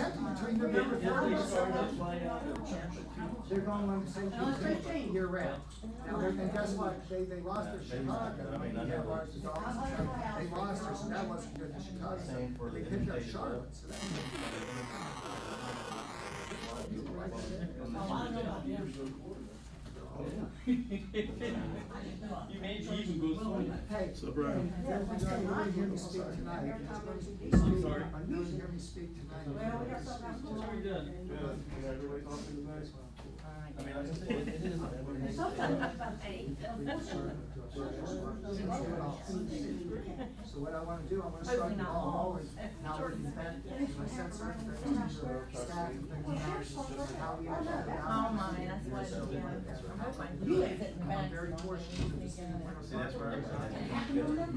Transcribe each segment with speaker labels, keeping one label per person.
Speaker 1: between
Speaker 2: Did-
Speaker 1: November
Speaker 2: did they
Speaker 1: first
Speaker 2: start
Speaker 1: and
Speaker 2: up
Speaker 1: December.
Speaker 2: right after Championship?
Speaker 1: They're going on the same
Speaker 3: No, it's
Speaker 1: team
Speaker 3: fifteen.
Speaker 1: year round. Now, they're- and guess what, they, they lost to
Speaker 4: Yeah, maybe not.
Speaker 1: Chicago,
Speaker 4: I mean, I
Speaker 1: they
Speaker 4: know.
Speaker 1: lost to Dallas, and Chicago. they lost, to- so that wasn't good to Chicago,
Speaker 4: Same for
Speaker 1: they
Speaker 4: the
Speaker 1: picked up
Speaker 4: invitation, though.
Speaker 1: Charlotte, so that.
Speaker 3: Oh, I don't know about them.
Speaker 2: You may even go swing.
Speaker 1: Hey.
Speaker 5: So, Brian.
Speaker 1: You're gonna hear me speak tonight.
Speaker 2: I'm sorry.
Speaker 1: I'm gonna hear me speak tonight.
Speaker 3: Well, we got something
Speaker 2: That's what we done.
Speaker 4: I mean, like I said, it is.
Speaker 1: So what I wanna do, I wanna start the ball rolling, now we're in bed, my sense of things, or staff and things, and how we actually balance.
Speaker 3: You live in the back.
Speaker 1: I'm very fortunate to see when I'm-
Speaker 4: See, that's where I'm at.
Speaker 1: You know,
Speaker 4: You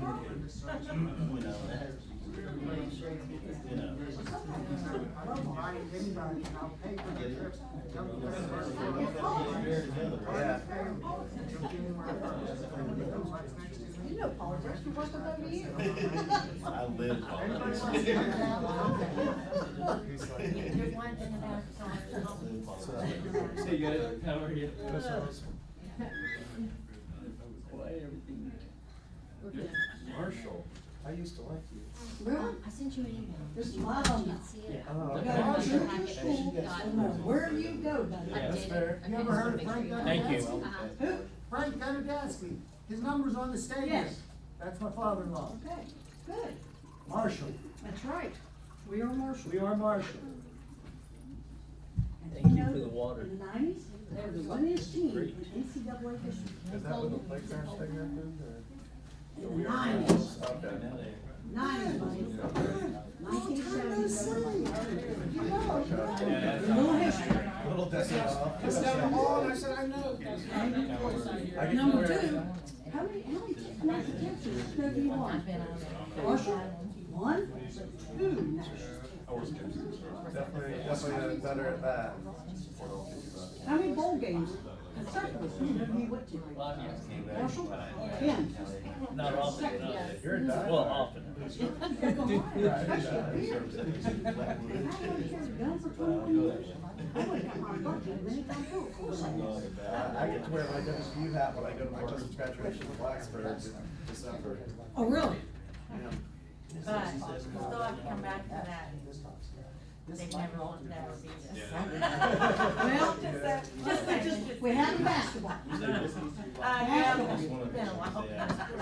Speaker 4: know.
Speaker 1: I don't mind anybody, I'll pay for the trips. Come to the first one.
Speaker 4: Yeah.
Speaker 3: You know politics, you worked about me.
Speaker 4: I live. on
Speaker 3: There's
Speaker 4: it.
Speaker 3: one in the back, so I'll- I'll-
Speaker 2: Hey, good, how are you?
Speaker 3: That's all right.
Speaker 2: Why everything?
Speaker 3: Okay.
Speaker 2: Marshall.
Speaker 4: I used to like you.
Speaker 3: Really?
Speaker 6: I sent you an email.
Speaker 3: There's a lot on that.
Speaker 4: Oh,
Speaker 3: Got all
Speaker 4: okay.
Speaker 3: your school,
Speaker 4: Yeah.
Speaker 3: no matter where you go, buddy.
Speaker 2: Yeah, that's
Speaker 1: fair. You ever heard of Frank
Speaker 2: Thank you.
Speaker 1: Who? Frank Benedeschi, his number's on the stadium.
Speaker 3: Yes.
Speaker 1: That's my father-in-law,
Speaker 3: Okay, good,
Speaker 1: Marshall.
Speaker 3: that's right, we are Marshall.
Speaker 1: We are Marshall.
Speaker 3: And
Speaker 2: Thank you
Speaker 3: know
Speaker 2: for the
Speaker 3: that
Speaker 2: water.
Speaker 3: In the nineties, they were the winningest team in NCAA history.
Speaker 4: Is that when the playground's taking that move or?
Speaker 3: In the nineties,
Speaker 4: Okay, now they.
Speaker 3: nineties, buddy. Nineteen seventy. You know, you know.
Speaker 2: Yeah, that's-
Speaker 3: Little history.
Speaker 4: Little
Speaker 1: I said, I know.
Speaker 3: Number two, how many, how many, t- how many catches have you won? Marshall, one, two national.
Speaker 4: Definitely, definitely better at that.
Speaker 3: How many bowl games consecutively have you went to? Marshall, ten.
Speaker 2: Not often, no.
Speaker 4: You're a diehard.
Speaker 2: Well, often.
Speaker 3: You're going hard, especially here. I
Speaker 4: Right.
Speaker 3: would've carried a gun for twenty-one years. I would've got my bucket many times over, of course I would.
Speaker 4: I get to wear my WSU hat when I go to my cousin's graduation in Blacksburg in December.
Speaker 3: Oh, really?
Speaker 7: But still have to come back to that, they never will never beat us.
Speaker 3: Well, Just,
Speaker 7: Just-
Speaker 3: just, we had the basketball.
Speaker 7: Uh, yeah, but it's been a while.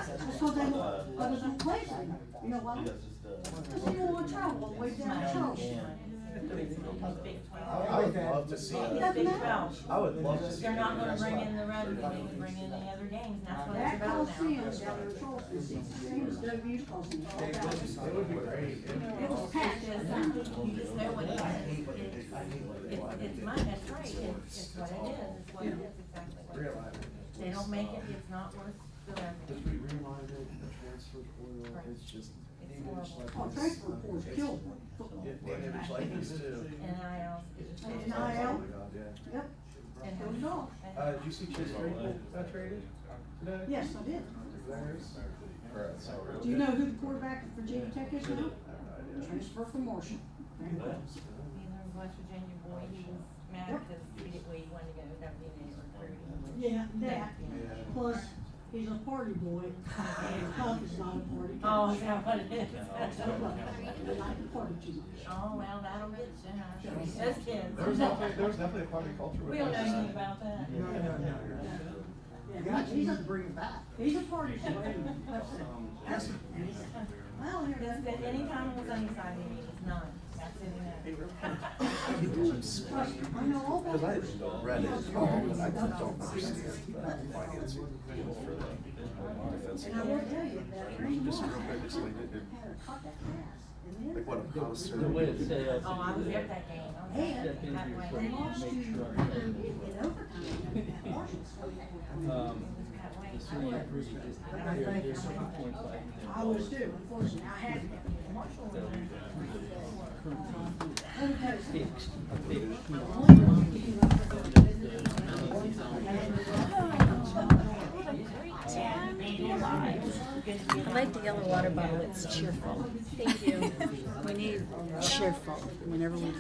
Speaker 3: That's what they, others don't play anymore. You know why? Cause they don't wanna travel all the way down Charles Street.
Speaker 7: Big
Speaker 4: I
Speaker 7: twelve.
Speaker 4: would love to see
Speaker 7: It's
Speaker 4: that.
Speaker 7: Big twelve.
Speaker 4: I would love to see.
Speaker 7: They're not gonna bring in the
Speaker 4: red.
Speaker 7: revenue, they can bring in the other games, and that's what it's
Speaker 3: That
Speaker 7: about
Speaker 3: Coliseum
Speaker 7: now.
Speaker 3: down there in Charles Street, it's the same as W Coliseum. It's all
Speaker 4: It
Speaker 3: about-
Speaker 4: would be great.
Speaker 3: It was packed.
Speaker 7: It's just, uh, you just know what it is, it's, it's- it's money, that's right, it's, it's what it is, it's what it is, exactly what it is.
Speaker 4: Realize.
Speaker 7: They don't make it, it's not worth the
Speaker 8: Just
Speaker 7: revenue.
Speaker 8: be reminded, the transfer portal is just.
Speaker 7: It's
Speaker 8: image
Speaker 7: horrible.
Speaker 8: like
Speaker 3: Oh,
Speaker 8: this,
Speaker 4: uh,
Speaker 3: transfer
Speaker 8: um,
Speaker 3: portal
Speaker 8: it's-
Speaker 3: killed
Speaker 4: It,
Speaker 3: football.
Speaker 4: it was like this too.
Speaker 7: NIL.
Speaker 3: And I am,
Speaker 4: Oh, Yeah.
Speaker 3: yep,
Speaker 7: And-
Speaker 3: killed it all.
Speaker 4: Uh, did you see Chase Claypool got traded? No?
Speaker 3: Yes, I did.
Speaker 4: Niners?
Speaker 3: Do you know who the quarterback of Virginia Tech is now? Transfer from Marshall.
Speaker 7: Either West Virginia boy, he was mad because he didn't, well, he wanted to go to WNA recruiting.
Speaker 3: Yeah, that.
Speaker 4: Yeah.
Speaker 3: Plus, he's a party boy, and his pop is not a party. guy.
Speaker 7: Oh, is that what it
Speaker 3: So, uh,
Speaker 7: is?
Speaker 3: I like to party too much.
Speaker 7: Oh, well, that'll get you, huh? Those kids.
Speaker 4: There was definitely, there was definitely a party culture with
Speaker 7: We don't know
Speaker 4: us.
Speaker 7: anything about that.
Speaker 1: No, no, no, no. You
Speaker 3: Yeah,
Speaker 1: got, you
Speaker 3: he's
Speaker 1: need to
Speaker 3: a,
Speaker 1: bring it back.
Speaker 3: he's a party boy. and that's it. That's it. I don't hear
Speaker 7: Just
Speaker 3: that.
Speaker 7: that any time it was undecided, it was none. That's it.
Speaker 3: Trust me, I know all
Speaker 4: Cause
Speaker 3: about
Speaker 4: I
Speaker 3: it.
Speaker 4: had read it, but I just don't understand that finance people for
Speaker 3: And I will tell you that Randy Moss
Speaker 4: Just real quick, just
Speaker 3: had
Speaker 4: like it did.
Speaker 3: a cut that pass, and then.
Speaker 4: Like what a connoisseur.
Speaker 2: The way um, it's set up.
Speaker 7: Oh, I was at that game. I was
Speaker 3: And
Speaker 7: at that
Speaker 2: Step
Speaker 3: They
Speaker 2: into
Speaker 7: way.
Speaker 2: your
Speaker 3: lost to,
Speaker 2: Make sure.
Speaker 3: in overtime, at Marshall State.
Speaker 2: Um,
Speaker 7: That way.
Speaker 2: this one improved it.
Speaker 1: And I thank you so much.
Speaker 3: I was too, unfortunately, I had to.
Speaker 7: Marshall was
Speaker 3: Let me tell you something.
Speaker 2: Fixed, fixed.
Speaker 6: I like the Uh-huh. yellow water bottle, it's cheerful. Thank you. We need cheerful whenever we